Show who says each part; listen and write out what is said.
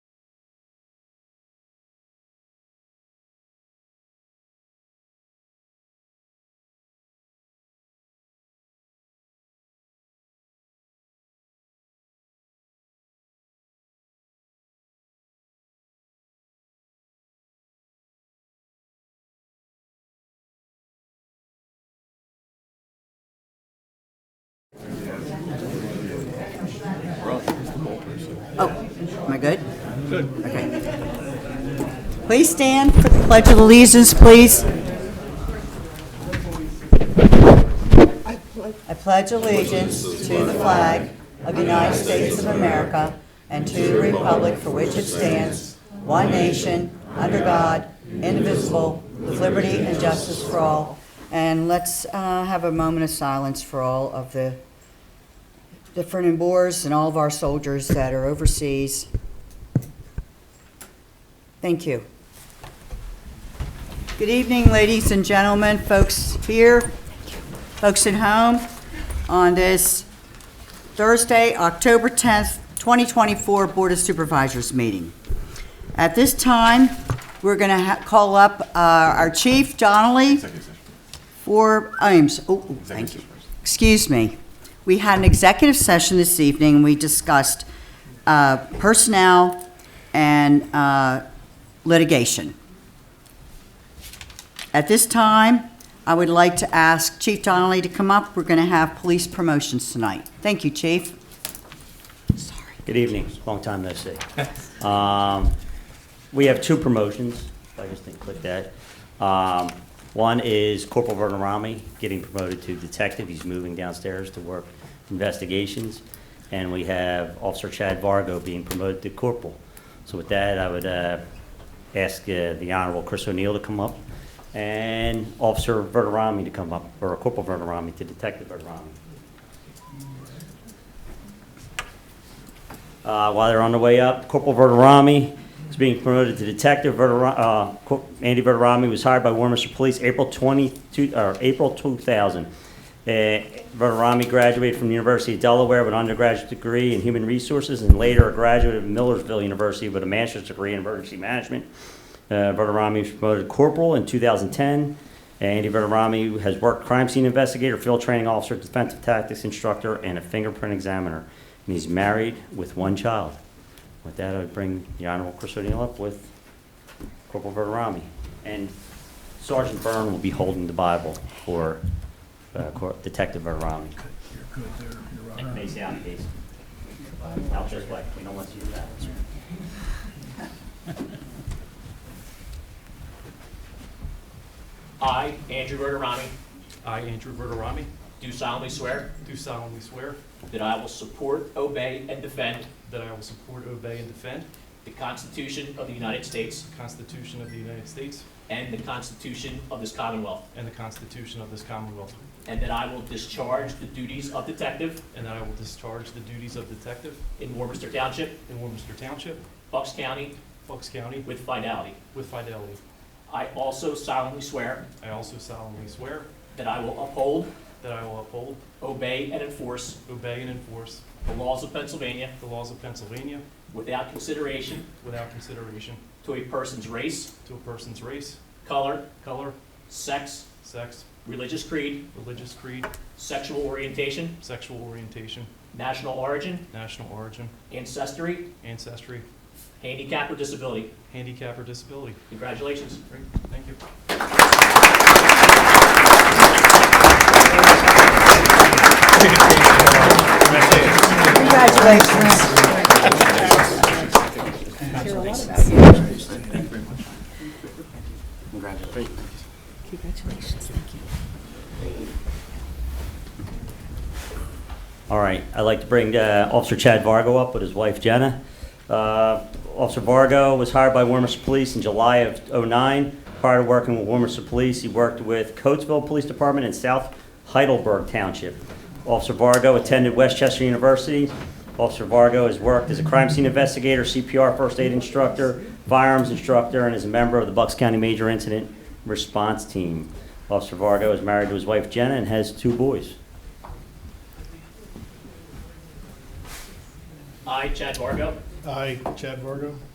Speaker 1: Oh, am I good? Good. Okay. Please stand for the Pledge of Allegiance, please. I pledge allegiance to the flag of the United States of America and to the republic for which it stands, one nation, under God, indivisible, with liberty and justice for all. And let's uh, have a moment of silence for all of the different in wars and all of our soldiers that are overseas. Thank you. Good evening, ladies and gentlemen, folks here, folks at home, on this Thursday, October 10th, 2024 Board of Supervisors meeting. At this time, we're going to call up uh, our chief, Donnelly, for, I'm, s- oh, oh, thank you. Excuse me. We had an executive session this evening, and we discussed uh, personnel and uh, litigation. At this time, I would like to ask Chief Donnelly to come up. We're going to have police promotions tonight. Thank you, Chief.
Speaker 2: Good evening, long time no see. Um, We have two promotions, if I just didn't click that. Um, One is Corporal Vernon Rami getting promoted to detective, he's moving downstairs to work investigations. And we have Officer Chad Vargo being promoted to corporal. So with that, I would uh, ask uh, the Honorable Chris O'Neill to come up and Officer Vernon Rami to come up, or Corporal Vernon Rami to Detective Vernon Rami. Uh, While they're on the way up, Corporal Verderami is being promoted to detective. Verderami- uh, Cor- Andy Verderami was hired by Warminster Police April 22, or April 2000. Uh, Verderami graduated from the University of Delaware with an undergraduate degree in human resources and later a graduate of Millersville University with a master's degree in emergency management. Uh, Verderami was promoted to corporal in 2010. Andy Verderami has worked crime scene investigator, field training officer, defensive tactics instructor, and a fingerprint examiner. And he's married with one child. With that, I would bring the Honorable Chris O'Neill up with Corporal Verderami. And Sergeant Byrne will be holding the Bible for uh, Cor- Detective Verderami. And face down, please. Out this way, we don't want you to do that.
Speaker 3: I, Andrew Verderami,
Speaker 4: I, Andrew Verderami,
Speaker 3: do solemnly swear
Speaker 4: do solemnly swear
Speaker 3: that I will support, obey, and defend
Speaker 4: that I will support, obey, and defend
Speaker 3: the Constitution of the United States
Speaker 4: the Constitution of the United States
Speaker 3: and the Constitution of this Commonwealth,
Speaker 4: and the Constitution of this Commonwealth,
Speaker 3: and that I will discharge the duties of detective
Speaker 4: and that I will discharge the duties of detective
Speaker 3: in Warmminster Township,
Speaker 4: in Warmminster Township,
Speaker 3: Bucks County,
Speaker 4: Bucks County,
Speaker 3: with finality.
Speaker 4: with fidelity.
Speaker 3: I also solemnly swear
Speaker 4: I also solemnly swear
Speaker 3: that I will uphold,
Speaker 4: that I will uphold,
Speaker 3: obey, and enforce
Speaker 4: obey, and enforce
Speaker 3: the laws of Pennsylvania
Speaker 4: the laws of Pennsylvania
Speaker 3: without consideration
Speaker 4: without consideration
Speaker 3: to a person's race,
Speaker 4: to a person's race,
Speaker 3: color,
Speaker 4: color,
Speaker 3: sex,
Speaker 4: sex,
Speaker 3: religious creed,
Speaker 4: religious creed,
Speaker 3: sexual orientation,
Speaker 4: sexual orientation,
Speaker 3: national origin,
Speaker 4: national origin,
Speaker 3: ancestry,
Speaker 4: ancestry,
Speaker 3: handicap, or disability.
Speaker 4: handicap, or disability.
Speaker 3: Congratulations.
Speaker 4: Great, thank you.
Speaker 1: Congratulations.
Speaker 2: All right, I'd like to bring uh, Officer Chad Vargo up with his wife Jenna. Uh, Officer Vargo was hired by Warmminster Police in July of '09. Prior to working with Warmminster Police, he worked with Coatesville Police Department in South Heidelberg Township. Officer Vargo attended Westchester University. Officer Vargo has worked as a crime scene investigator, CPR first aid instructor, firearms instructor, and is a member of the Bucks County Major Incident Response Team. Officer Vargo is married to his wife Jenna and has two boys.
Speaker 3: I, Chad Vargo,
Speaker 5: I, Chad Vargo,